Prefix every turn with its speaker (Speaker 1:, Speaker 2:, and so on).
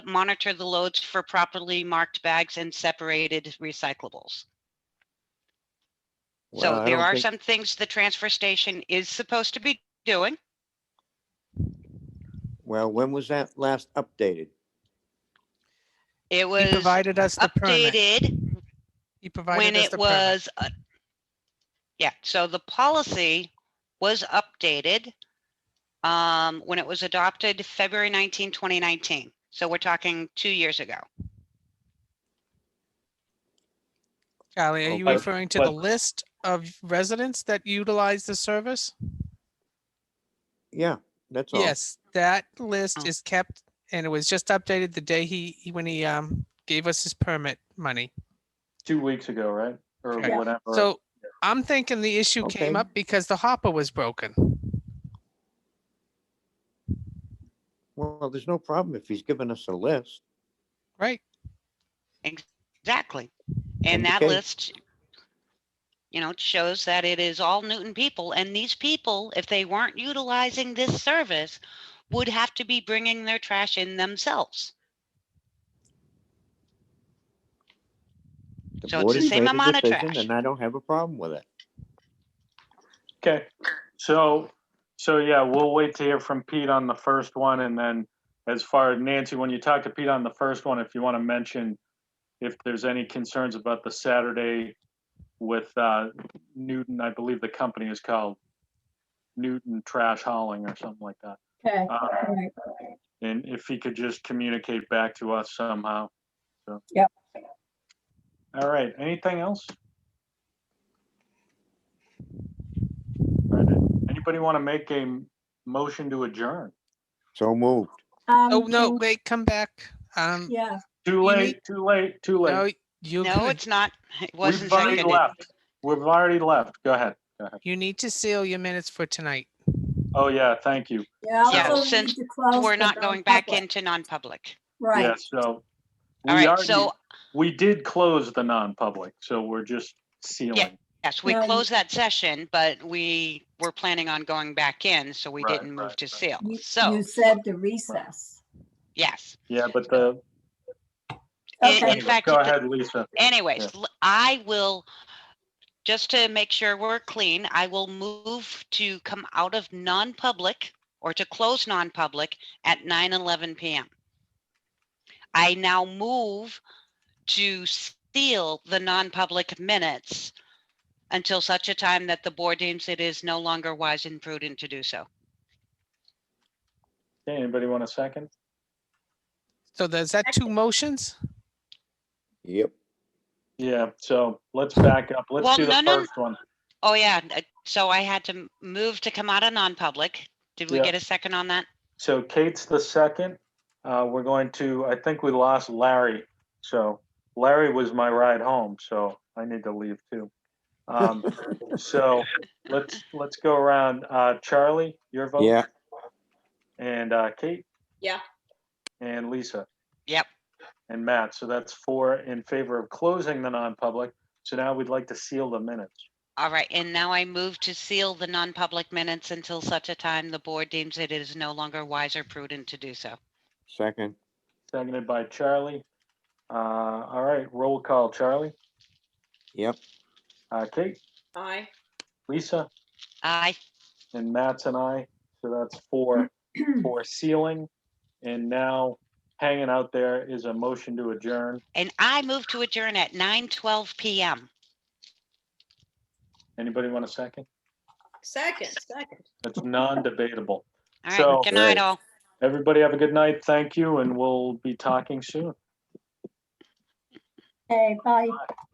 Speaker 1: monitor the loads for properly marked bags and separated recyclables.
Speaker 2: Well,
Speaker 1: So
Speaker 2: I
Speaker 1: there
Speaker 2: don't
Speaker 1: are
Speaker 2: think-
Speaker 1: some things the transfer station is supposed to be doing.
Speaker 2: Well, when was that last updated?
Speaker 1: It
Speaker 3: He
Speaker 1: was
Speaker 3: provided us the permit.
Speaker 1: updated
Speaker 3: He provided
Speaker 1: when
Speaker 3: us
Speaker 1: it
Speaker 3: the permit.
Speaker 1: was. uh, Yeah, so the policy was updated um, when it was adopted February 19, 2019. So we're talking two years ago.
Speaker 3: Charlie, are
Speaker 4: Oh,
Speaker 3: you
Speaker 4: but-
Speaker 3: referring to the
Speaker 4: but-
Speaker 3: list of residents that utilize the service?
Speaker 2: Yeah, that's all.
Speaker 3: Yes, that list
Speaker 1: Oh.
Speaker 3: is kept and it was just updated the day he, he- when he, um, gave us his permit money.
Speaker 4: two weeks ago, right? Or
Speaker 3: Yeah.
Speaker 4: whatever.
Speaker 3: So I'm thinking the issue came
Speaker 2: Okay.
Speaker 3: up because the hopper was broken.
Speaker 2: Well, there's no problem if he's given us a list.
Speaker 3: Right,
Speaker 1: Exactly. And that
Speaker 2: Indicate.
Speaker 1: list, you know, it shows that it is all Newton people. And these people, if they weren't utilizing this service, would have to be bringing their trash in themselves. So it's
Speaker 2: board
Speaker 1: the
Speaker 2: has
Speaker 1: same
Speaker 2: made a
Speaker 1: amount of
Speaker 2: decision,
Speaker 1: trash.
Speaker 2: And I don't have a problem with it.
Speaker 4: okay, so so yeah, we'll wait to hear from Pete on the first one, and then as far as Nancy, when you talk to Pete on the first one, if you want to mention if there's any concerns about the Saturday with uh, Newton, I believe the company is called Newton Trash Hauling or something like that.
Speaker 5: Okay,
Speaker 4: Uh,
Speaker 5: all right.
Speaker 4: and if he could just communicate back to us somehow. So.
Speaker 5: Yep.
Speaker 4: All right, anything else? All right, Anybody want to make a m- motion to adjourn?
Speaker 2: So moved.
Speaker 5: Um,
Speaker 3: oh, no,
Speaker 5: can-
Speaker 3: wait, come back, um,
Speaker 5: Yeah,
Speaker 4: Too
Speaker 3: You
Speaker 4: late,
Speaker 3: need-
Speaker 4: too late, too
Speaker 3: no,
Speaker 4: late.
Speaker 3: you.
Speaker 1: No, it's not. It wasn't
Speaker 4: We've already
Speaker 1: seconded.
Speaker 4: left. We've already left. Go ahead.
Speaker 3: You need to seal your minutes for tonight.
Speaker 4: Oh, yeah, thank you.
Speaker 5: yeah.
Speaker 4: Yeah,
Speaker 5: also we
Speaker 1: since
Speaker 5: need to close
Speaker 1: We're
Speaker 5: the
Speaker 1: not going back
Speaker 5: non-public.
Speaker 1: into non-public.
Speaker 4: Yeah,
Speaker 5: Right,
Speaker 4: so.
Speaker 1: All
Speaker 4: we
Speaker 1: right,
Speaker 4: already-
Speaker 1: so
Speaker 4: We did close the non-public, so we're just sealing.
Speaker 1: yes, we
Speaker 5: No, you-
Speaker 1: closed that session, but we were planning on going back in, so we
Speaker 4: Right,
Speaker 1: didn't
Speaker 4: right,
Speaker 1: move to
Speaker 4: right.
Speaker 1: seal.
Speaker 5: you you
Speaker 1: So,
Speaker 5: said to recess.
Speaker 1: yes.
Speaker 4: Yeah, but the.
Speaker 1: In-
Speaker 5: Okay.
Speaker 1: In fact,
Speaker 4: Go
Speaker 1: it-
Speaker 4: ahead, Lisa.
Speaker 1: Anyways, l- I will, just to make sure we're clean, I will move to come out of non-public or to close non-public at nine eleven PM. I now move to seal the non-public minutes until such a time that the board deems it is no longer wise and prudent to do so.
Speaker 4: Okay, Anybody want a second?
Speaker 3: So there's that two motions?
Speaker 2: Yep.
Speaker 4: Yeah, so let's back up. Let's
Speaker 1: Well,
Speaker 4: do
Speaker 1: no,
Speaker 4: the
Speaker 1: no,
Speaker 4: first one.
Speaker 1: Oh, yeah, uh, so I had to m- move to come out of non-public. Did we
Speaker 4: Yeah.
Speaker 1: get a second on that?
Speaker 4: So Kate's the second. Uh, we're going to, I think we lost Larry. So Larry was my ride home, so I need to leave too. Um, so let's, let's go around. Uh, Charlie, your vote?
Speaker 2: Yeah.
Speaker 4: And, uh, Kate?
Speaker 5: Yeah.
Speaker 4: And Lisa?
Speaker 1: Yep.
Speaker 4: And Matt. So that's four in favor of closing the non-public. So now we'd like to seal the minutes.
Speaker 1: All right, and now I move to seal the non-public minutes until such a time the board deems it is no longer wise or prudent to do so.
Speaker 2: Second.
Speaker 4: Seconded by Charlie. Uh, all right, roll call, Charlie.
Speaker 2: Yep.
Speaker 4: Uh, Kate,
Speaker 5: Aye.
Speaker 4: Lisa,
Speaker 1: Aye,
Speaker 4: and Matt's and I. So that's four for sealing. And now hanging out there is a motion to adjourn.
Speaker 1: and I move to adjourn at nine twelve PM.
Speaker 4: Anybody want a second?
Speaker 6: Second, second.
Speaker 4: That's non-debatable.
Speaker 1: All
Speaker 4: So-
Speaker 1: right, good night
Speaker 2: Great.
Speaker 1: all.
Speaker 4: Everybody have a good night. Thank you, and we'll be talking soon.
Speaker 5: Okay, bye.